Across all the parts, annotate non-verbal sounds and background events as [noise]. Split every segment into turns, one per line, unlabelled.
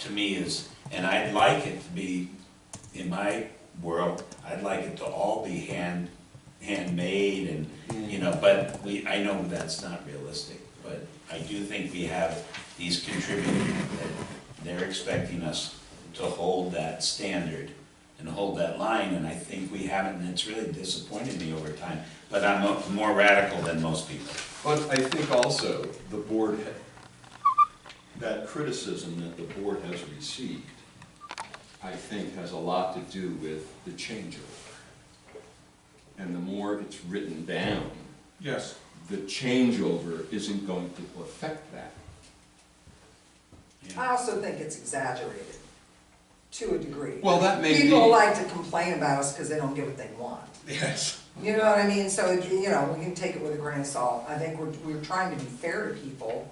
to me is, and I'd like it to be, in my world, I'd like it to all be hand, handmade and, you know, but we, I know that's not realistic, but I do think we have these contributors that they're expecting us to hold that standard and hold that line, and I think we haven't, and it's really disappointed me over time, but I'm mo- more radical than most people.
But I think also the board, ha- that criticism that the board has received, I think has a lot to do with the changeover. And the more it's written down,
Yes.
the changeover isn't going to affect that.
Yeah.
I also think it's exaggerated, to a degree.
Well, that may
People
be-
like to complain about us because they don't get what they want.
Yes.
You know what I mean? So, you know, we can take it with a grain of salt. I think we're, we're trying to be fair to people,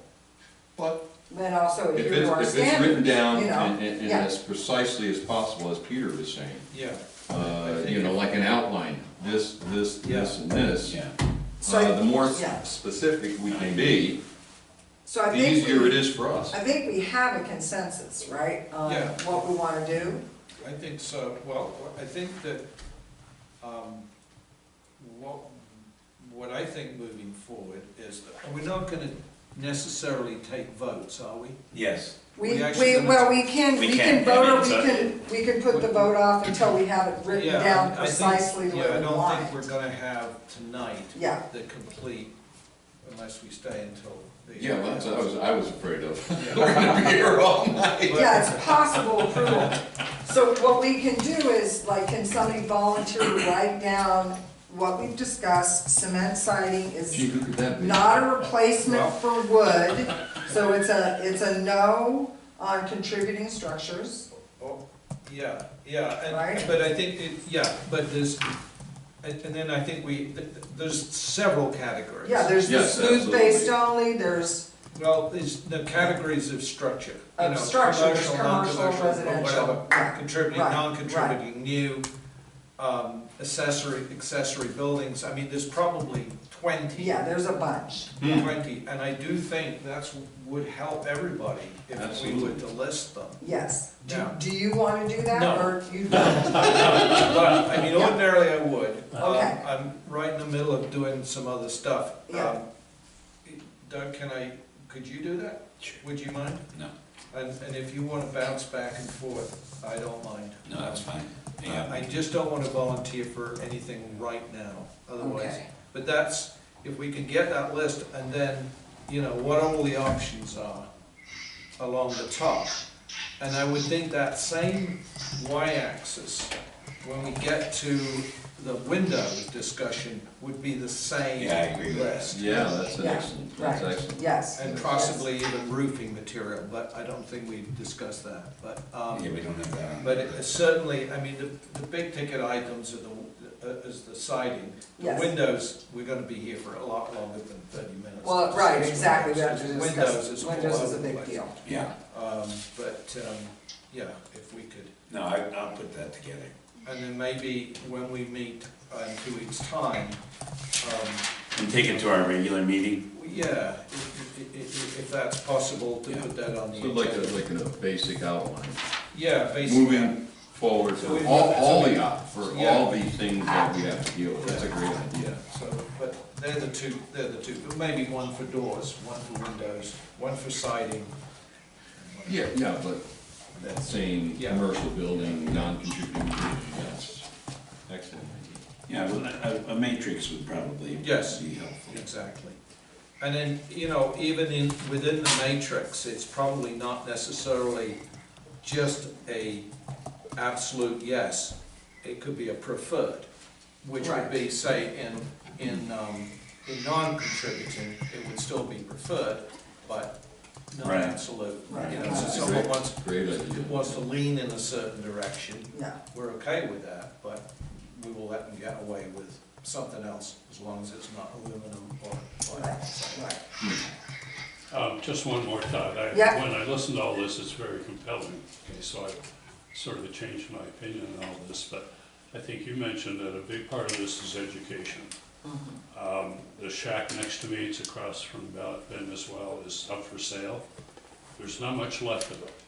But
but also
if
adhere
it's,
to our
if it's written
standards,
down
you know?
and, and and
Yeah.
as precisely as possible, as Peter was saying,
Yeah. I
uh,
think
you know,
it-
like an outline, this, this, this, and this.
Yeah.
So I-
Uh, the more s-
yeah.
specific we can be,
So I
the
think
easier
we-
it is for us.
I think we have a consensus, right? On
Yeah.
what we want to do.
I think so, well, I think that, um, what, what I think moving forward is that, we're not gonna necessarily take votes, are we?
Yes,
We,
We actually-
we, well, we can,
We
we
can,
can vote
I
or
mean,
we
so-
can, we can put the vote off until we have it written
Yeah,
down
I think-
precisely the way we
Yeah, I
want
don't think
it.
we're gonna have tonight
Yeah.
the complete, unless we stay until the.
Yeah, well, that's what I was, I was afraid of. [laughs]
Yeah.
We're gonna be here all night.
Yeah, it's possible approval. So what we can do is, like, can somebody volunteer to write down what we've discussed? Cement siding
Gee,
is
who could that be?
not a replacement for wood, so it's a, it's a no on contributing structures.
Oh, Yeah, yeah,
Right?
and, but I think, it- yeah, but there's, and and then I think we, th- th- there's several categories.
Yeah, there's the
Yes,
smooth-faced
absolutely.
only, there's,
Well, there's the categories of structure, you
Of
know,
structure, there's
commercial,
commercial,
non-commercial, or
residential,
whatever,
right,
contributing,
right,
non-contributing, new, um, accessory, accessory buildings, I mean, there's probably twenty,
yeah, there's a bunch.
twenty, and I do think that's, would help everybody if we were
Absolutely.
to list them.
Yes. Do,
Yeah.
do you wanna do that,
No.
or you don't?
But, I mean,
Yeah. Uh-huh.
ordinarily I would. Um,
Okay.
I'm right in the middle of doing some other stuff.
Yeah.
Um, Doug, can I, could you do that?
Sure.
Would you mind?
no,
And, and if you wanna bounce back and forth, I don't mind.
no, that's fine,
Uh,
yeah,
I just don't wanna volunteer for anything right now, otherwise.
Okay.
But that's, if we can get that list and then, you know, what all the options are along the top. And I would think that same y-axis, when we get to the window discussion, would be the same
Yeah, I agree with that.
list.
Yeah, that's
Yeah,
excellent, that's
right,
excellent.
Yes.
And possibly even roofing material, but I don't think we've discussed that, but, um.
yeah, we don't have that on.
But it- certainly, I mean, the, the big ticket items are the, uh, is the siding. The
Yes.
windows, we're gonna be here for a lot longer than thirty minutes.
Well, right,
It's
exactly, we have
windows.
to
It's Windows is
discuss,
all
windows is
over
a
the
big
place.
deal.
Yeah,
Um, but, um, yeah, if we could,
no, I, I'll put that together.
and then maybe when we meet uh, in two weeks' time, um,
And take it to our regular meeting?
yeah, if, if, if if that's possible, to
Yeah.
put that on the
So like a,
agenda.
like a basic outline,
Yeah, basically.
moving forward
So
for
we-
all, all the, op- for
Yeah.
all the things that we have to deal with, that's a great idea.
So, but they're the two, they're the two, but maybe one for doors, one for windows, one for siding.
Yeah, yeah, but that same
Yeah.
commercial building, non-contributing, building, that's excellent idea.
Yeah, well, a, a matrix would probably be
Yes.
helpful.
Exactly. And then, you know, even in, within the matrix, it's probably not necessarily just a absolute yes. It could be a preferred, which would be, say, in, in, um, in non-contributing, it would still be preferred, but not
Right.
absolute.
Right.
You know, so
That's a
someone
great-
wants,
Great idea.
wants to lean in a certain direction,
Yeah,
we're okay with that, but we will let them get away with something else as long as it's not aluminum or. or-
right, right.
Um, just one more thought. I,
Yeah.
when I listen to all this, it's very compelling. Okay, so I sort of changed my opinion on all this, but I think you mentioned that a big part of this is education. Um, the shack next to me, it's across from Bell- Ben as well, is up for sale. There's not much left of it.